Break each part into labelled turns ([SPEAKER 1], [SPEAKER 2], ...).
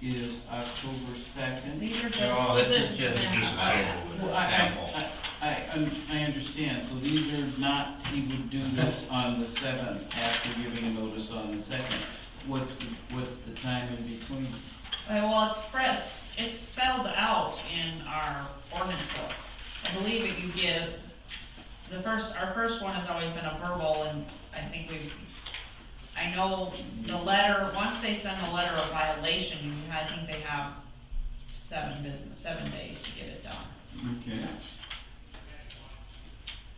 [SPEAKER 1] is October second.
[SPEAKER 2] These are just.
[SPEAKER 3] No, Oh, this is just, just
[SPEAKER 1] Well,
[SPEAKER 3] sample,
[SPEAKER 1] I,
[SPEAKER 3] sample.
[SPEAKER 1] I, I, I un- I understand, so these are not, he would do this on the seventh after giving a notice on the second. What's, the- what's the time in between?
[SPEAKER 2] Uh, Well, it's spread, it's spelled out in our ordinance book. I believe that you give, the first, our first one has always been a verbal, and I think we've, I know the letter, once they send the letter of violation, I think they have seven business, seven days to get it done.
[SPEAKER 1] Okay.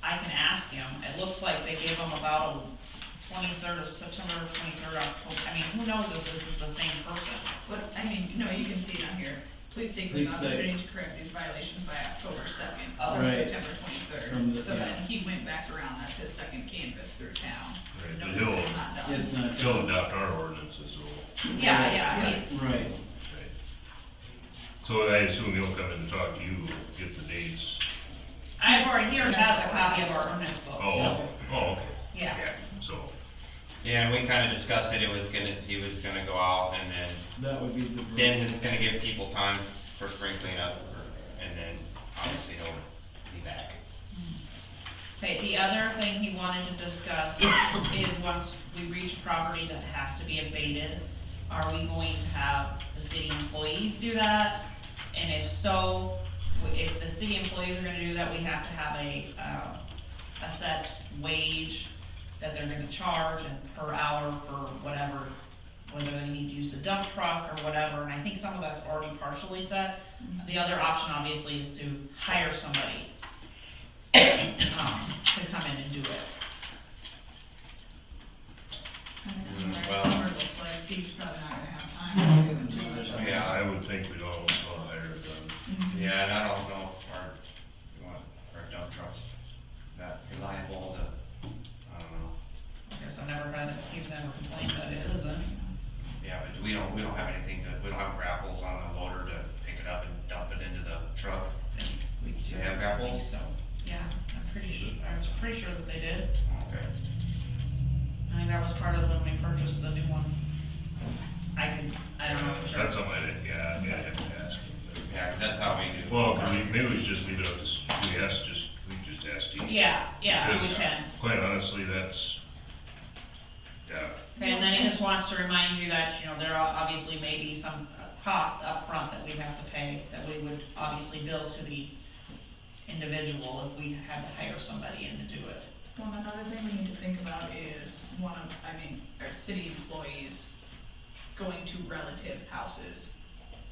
[SPEAKER 2] I can ask him, it looks like they gave him about a twenty-third of September, twenty-third of October, I mean, who knows if this is the same person?
[SPEAKER 4] But, I mean, no, you can see it on here. Please take
[SPEAKER 1] Please
[SPEAKER 4] this
[SPEAKER 1] say-
[SPEAKER 4] opportunity to correct these violations by October second or
[SPEAKER 1] Right.
[SPEAKER 4] September
[SPEAKER 1] From the-
[SPEAKER 4] twenty-third. So
[SPEAKER 1] yeah.
[SPEAKER 4] then he went back around, that's his second canvas through town.
[SPEAKER 3] Right,
[SPEAKER 4] No,
[SPEAKER 3] the
[SPEAKER 4] it's
[SPEAKER 3] new one.
[SPEAKER 4] not done.
[SPEAKER 1] It's not.
[SPEAKER 3] Still adopt our ordinances, so,
[SPEAKER 2] Yeah, yeah,
[SPEAKER 1] Right,
[SPEAKER 2] he's,
[SPEAKER 1] Right,
[SPEAKER 3] okay. So I assume he'll come in and talk to you, get the dates.
[SPEAKER 2] I've already, here has a copy of our ordinance book,
[SPEAKER 3] Oh,
[SPEAKER 2] so,
[SPEAKER 3] oh, okay.
[SPEAKER 2] yeah.
[SPEAKER 3] So,
[SPEAKER 5] Yeah, and we kinda discussed it, it was gonna, he was gonna go out and then,
[SPEAKER 1] that would be the.
[SPEAKER 5] then it's gonna give people time for spring cleanup, or- and then obviously he'll be back.
[SPEAKER 2] Okay, the other thing he wanted to discuss is once we reach a property that has to be abated, are we going to have the city employees do that? And if so, w- if the city employees are gonna do that, we have to have a, uh, a set wage that they're gonna charge and per hour for whatever, whether they need to use the dump truck or whatever, and I think some of that's already partially set.
[SPEAKER 4] Mm-hmm.
[SPEAKER 2] The other option obviously is to hire somebody um, to come in and do it.
[SPEAKER 4] And then
[SPEAKER 5] Mm,
[SPEAKER 4] our
[SPEAKER 5] well. Mm-hmm.
[SPEAKER 4] summer looks like Steve's probably not gonna have time to do it too much. of it.
[SPEAKER 3] yeah, I would think we'd all all hire them.
[SPEAKER 4] Mhm.
[SPEAKER 5] Yeah, and I don't know if our, you want, our dump trucks, that reliable to, I don't know.
[SPEAKER 2] I guess I've never read it, he's never complained that it isn't.
[SPEAKER 5] Yeah, but we don't, we don't have anything to, we don't have grapples on the loader to pick it up and dump it into the truck.
[SPEAKER 2] We
[SPEAKER 5] Do they have grapples?
[SPEAKER 2] So, yeah, I'm pretty sure, I was pretty sure that they did.
[SPEAKER 5] Okay.
[SPEAKER 2] I think that was part of when we purchased the new one. I could, I don't know for sure.
[SPEAKER 3] uh, That's something I didn't, yeah, I have to ask.
[SPEAKER 5] Yeah, 'cause that's how we do.
[SPEAKER 3] Well, could we- maybe we should just leave it up to, s- we ask, just, we just ask Steve.
[SPEAKER 2] Yeah, yeah, we
[SPEAKER 3] Because, uh,
[SPEAKER 2] can.
[SPEAKER 3] Quite honestly, that's, yeah,
[SPEAKER 2] Okay, and then he just wants to remind you that, you know, there are obviously may be some uh, cost upfront that we'd have to pay, that we would obviously bill to the individual if we had to hire somebody in to do it.
[SPEAKER 4] Well, another thing we need to think about is one of, I mean, our city employees going to relatives' houses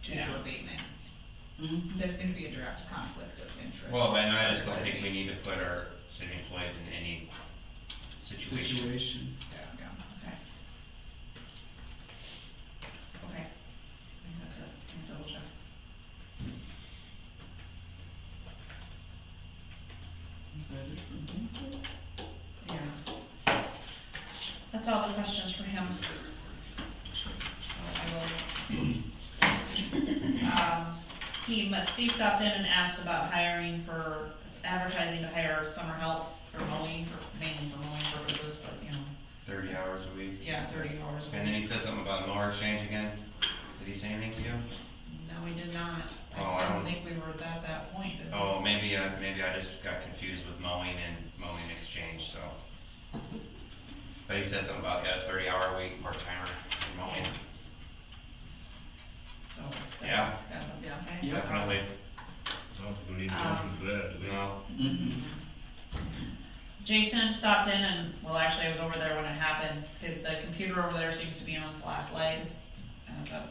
[SPEAKER 4] to do
[SPEAKER 2] Yeah.
[SPEAKER 4] abatement.
[SPEAKER 1] Mhm.
[SPEAKER 4] There's gonna be a direct conflict of interest.
[SPEAKER 5] Well, and I just don't think we need to put our city employees in any situation.
[SPEAKER 1] Situation.
[SPEAKER 4] Yeah.
[SPEAKER 2] Okay. I think that's it. Let me double check.
[SPEAKER 1] Is that it Mm-hmm. for him?
[SPEAKER 2] Yeah. That's all the questions for him. I will. Um, He, must- Steve stopped in and asked about hiring for, advertising to hire summer help for mowing, for- mainly for mowing purposes, but, you know,
[SPEAKER 5] Thirty hours a week.
[SPEAKER 2] yeah, thirty hours. a
[SPEAKER 5] And then
[SPEAKER 2] week.
[SPEAKER 5] he said something about mower exchange again. Did he say anything to you?
[SPEAKER 2] No, we did not.
[SPEAKER 5] Oh, I
[SPEAKER 2] I don't
[SPEAKER 5] don't-
[SPEAKER 2] think we were at that point. did we?
[SPEAKER 5] Oh, maybe, uh, maybe I just got confused with mowing and mowing exchange, so. But he said something about, yeah, thirty hour a week part timer for mowing.
[SPEAKER 2] So. that-
[SPEAKER 5] Yeah.
[SPEAKER 2] that would be okay.
[SPEAKER 1] Yeah.
[SPEAKER 5] Definitely,
[SPEAKER 3] I don't think we need to
[SPEAKER 2] Um,
[SPEAKER 3] go through that, do we?
[SPEAKER 5] no.
[SPEAKER 1] Mhm.
[SPEAKER 2] Jason stopped in and, well, actually, I was over there when it happened, his, the computer over there seems to be on its last leg. And so,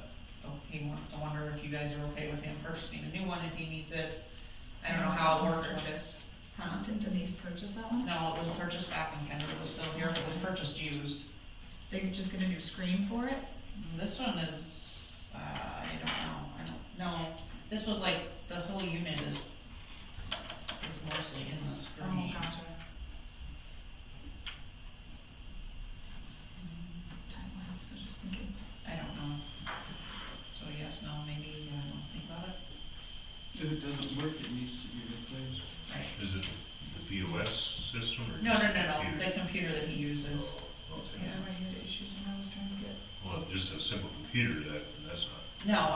[SPEAKER 2] oh, he wants to wonder if you guys are okay with him purchasing a new one if he needs it. I don't know how it worked or just, huh?
[SPEAKER 4] Didn't Denise purchase that one?
[SPEAKER 2] No, it was purchased back in Kendra, it was still here, it was purchased used.
[SPEAKER 4] They're just gonna do screen for it?
[SPEAKER 2] This one is, uh, I don't know, I don't, no, this was like, the whole unit is, is mostly in the
[SPEAKER 4] Oh,
[SPEAKER 2] screen.
[SPEAKER 4] gotcha. Time lapse, I was just thinking.
[SPEAKER 2] I don't know. So yes, no, maybe, uh, I don't think about it.
[SPEAKER 1] If it doesn't work, it needs to be replaced.
[SPEAKER 3] Is it the POS system or?
[SPEAKER 2] No, no,
[SPEAKER 3] just
[SPEAKER 2] no, no,
[SPEAKER 3] computer?
[SPEAKER 2] the computer that he uses.
[SPEAKER 3] Oh, okay.
[SPEAKER 2] Yeah.
[SPEAKER 4] I had issues when I was trying to get.
[SPEAKER 3] Well, just a simple computer, that, that's not
[SPEAKER 2] No,